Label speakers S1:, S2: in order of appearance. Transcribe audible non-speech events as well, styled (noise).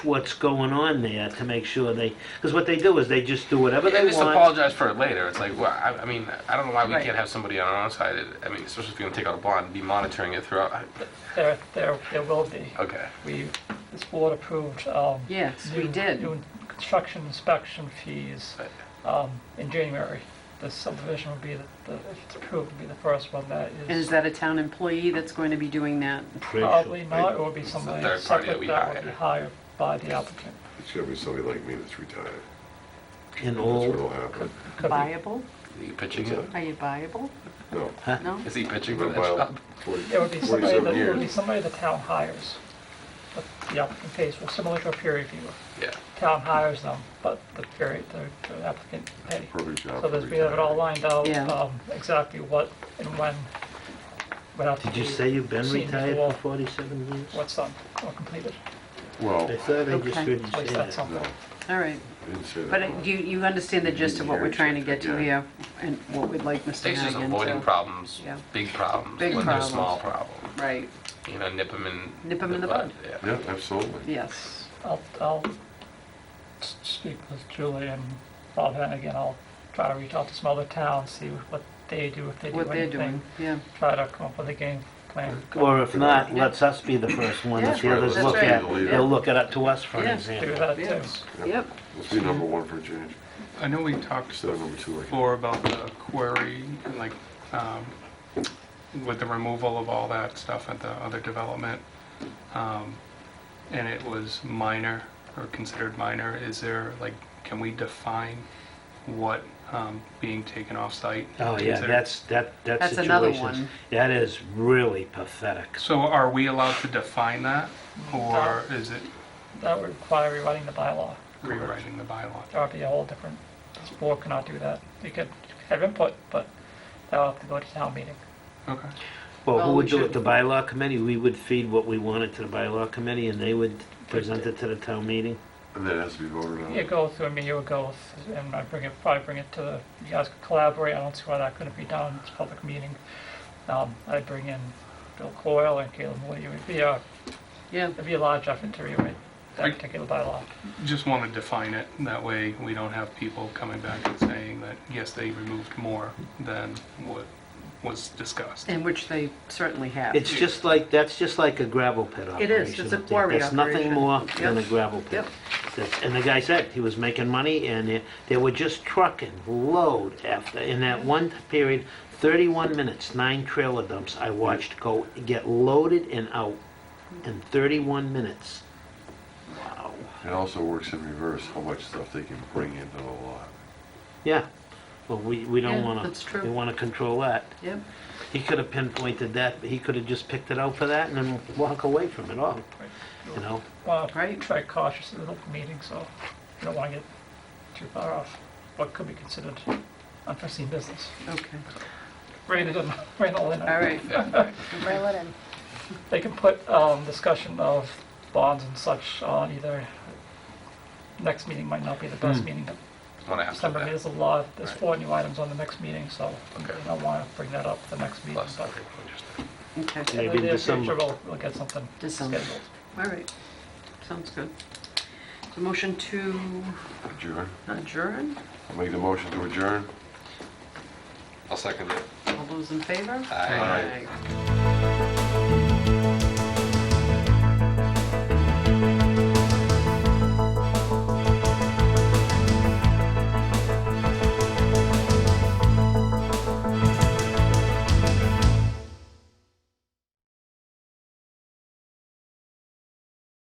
S1: what's going on there to make sure they, because what they do is they just do whatever
S2: And
S1: they
S2: just
S1: want.
S2: apologize for it later. It's like, well, I, I mean, I don't know why we
S3: Right.
S2: can't have somebody on our side. I mean, especially if you're gonna take out a bond, be monitoring it throughout. I-
S3: There, there, there will be.
S2: Okay.
S3: We, this board approved, um.
S4: Yes, we
S3: new-
S4: did.
S3: New construction inspection fees,
S2: Right.
S3: um, in January. The subdivision will be, the, the- if it's approved, will be the first one that
S4: And is
S3: is.
S4: that a town employee that's going to be doing that?
S1: Pretty sure.
S3: Probably not, it will be somebody
S2: third party that
S3: separate
S2: we
S3: that will
S2: hire.
S3: be hired by the applicant.
S5: It's gonna be somebody like me that's retired.
S1: And
S5: That's what'll
S1: all,
S5: happen.
S3: Could be.
S4: Viable?
S2: Is he pitching
S5: What's
S2: it?
S4: Are you viable?
S5: No.
S4: No?
S2: Is he pitching for
S5: Been
S2: that
S5: about
S2: job?
S5: 40
S3: It would be somebody, that
S5: 47
S3: it would be
S5: years.
S3: somebody the town hires. But The applicant pays, well, similar to a peer reviewer.
S2: Yeah.
S3: Town hires them, but the peer, the- the applicant pays.
S5: Perfect job
S3: So
S5: for
S3: there's, we have it all
S5: retired.
S3: lined out,
S4: Yeah.
S3: um, exactly what and when, what have to
S1: did you
S3: be
S1: say you've been
S3: seen
S1: retired
S3: before
S1: for 47 years?
S3: What's done or completed,
S1: I
S5: Well,
S1: thought I just
S4: Okay.
S1: heard you
S3: at
S1: say
S3: least that's
S1: that.
S3: something.
S5: no,
S4: All right.
S5: I didn't say that.
S4: But uh, you, you understand the gist of what we're trying to get to here and what we'd like Mr.
S2: Stacy's
S4: Hannigan
S2: avoiding
S4: to...
S2: problems,
S4: Yeah.
S2: big problems,
S4: Big
S2: when they're
S4: problems.
S2: small problems.
S4: Right,
S2: You know, nip them in.
S4: Nip 'em in the bud.
S2: Yeah.
S5: Yeah, absolutely.
S4: yes.
S3: I'll, I'll s- speak with Julie and Bob Hannigan, I'll try to reach out to some other towns, see what they do, if they do anything.
S4: What they're doing, yeah.
S3: Try to come up with a game plan.
S1: Or if not, let's us be the first one that the
S4: Yeah,
S1: others
S4: that's
S1: look
S4: right.
S1: at. They'll look it up to us for an
S4: Yeah.
S3: Do
S1: example.
S3: that too.
S4: Yes.
S5: Yeah.
S4: Yep.
S5: Let's be number one for a change,
S6: I know we talked
S5: instead of number two. like-
S6: before about the query, and like, um, with the removal of all that stuff at the other development, um, and it was minor, or considered minor, is there, like, can we define what um, being taken off-site?
S1: Oh,
S6: is
S1: yeah,
S6: considered?
S1: that's, that, that
S4: That's another
S1: situation,
S4: one.
S1: that is really pathetic.
S6: So are we allowed to define that, or is it
S3: That would require rewriting the bylaw.
S6: rewriting the bylaw?
S3: That would be a whole different, this board cannot do that. You could have input, but that would have to go to town meeting.
S6: Okay.
S1: Well, who
S4: Well,
S1: would
S4: we
S1: do it,
S4: should-
S1: the bylaw committee? We would feed what we wanted to the bylaw committee, and they would present it to the town meeting?
S5: And that has to be voted
S3: You
S5: on.
S3: go through me, you would go, th- and I bring it, probably bring it to the, you guys could collaborate, I don't see why that couldn't be done, it's a public meeting. Um, I'd bring in Bill Coyle and Caleb Moody, it'd be a,
S4: Yeah,
S3: it'd be a large effort to rewrite that
S6: Right.
S3: particular bylaw.
S6: Just want to define it, that way we don't have people coming back and saying that, yes, they removed more than what was discussed.
S4: and which they certainly have.
S1: It's just like, that's just like a gravel pit operation.
S4: It is. It's a
S1: up there.
S4: quarry
S1: That's nothing
S4: operation.
S1: more than a
S4: Yep.
S1: gravel pit.
S4: Yep.
S1: That's- And the guy said, he was making money, and they- they were just trucking load after, in that one period, 31 minutes, nine trailer dumps I watched go get loaded and out in 31 minutes. Wow.
S5: It also works in reverse, how much stuff they can bring into the lot.
S1: Yeah, well, we, we don't
S4: Yeah,
S1: want to.
S4: that's true.
S1: We want to control that.
S4: Yep,
S1: He could have pinpointed that, he could have just picked it out for that and then walk away from it all, you know?
S3: Well,
S4: Right.
S3: try cautiously with open meetings, so you don't want to get too far off what could be considered unforeseen business.
S4: okay,
S3: Rain it in, (laughs) rain it all in.
S4: all right.
S7: Rail it in.
S3: They can put um, discussion of bonds and such on either, next meeting might not be the best meeting, but
S2: One after
S3: December
S2: that.
S3: there's a lot, there's
S2: Right.
S3: four new items on the next meeting, so you
S2: Okay.
S3: don't want to bring that up the next meeting.
S2: Plus,
S3: but
S2: okay, we'll just-
S4: Okay,
S1: Maybe
S3: in the near
S1: December.
S3: future, We'll we'll get something
S4: December.
S3: scheduled.
S4: all right. Sounds good. So motion to
S5: Adjourn.
S4: adjourn?
S5: I'll make the motion to adjourn.
S2: I'll second it.
S4: All those in favor?
S2: Aye.
S4: Aye.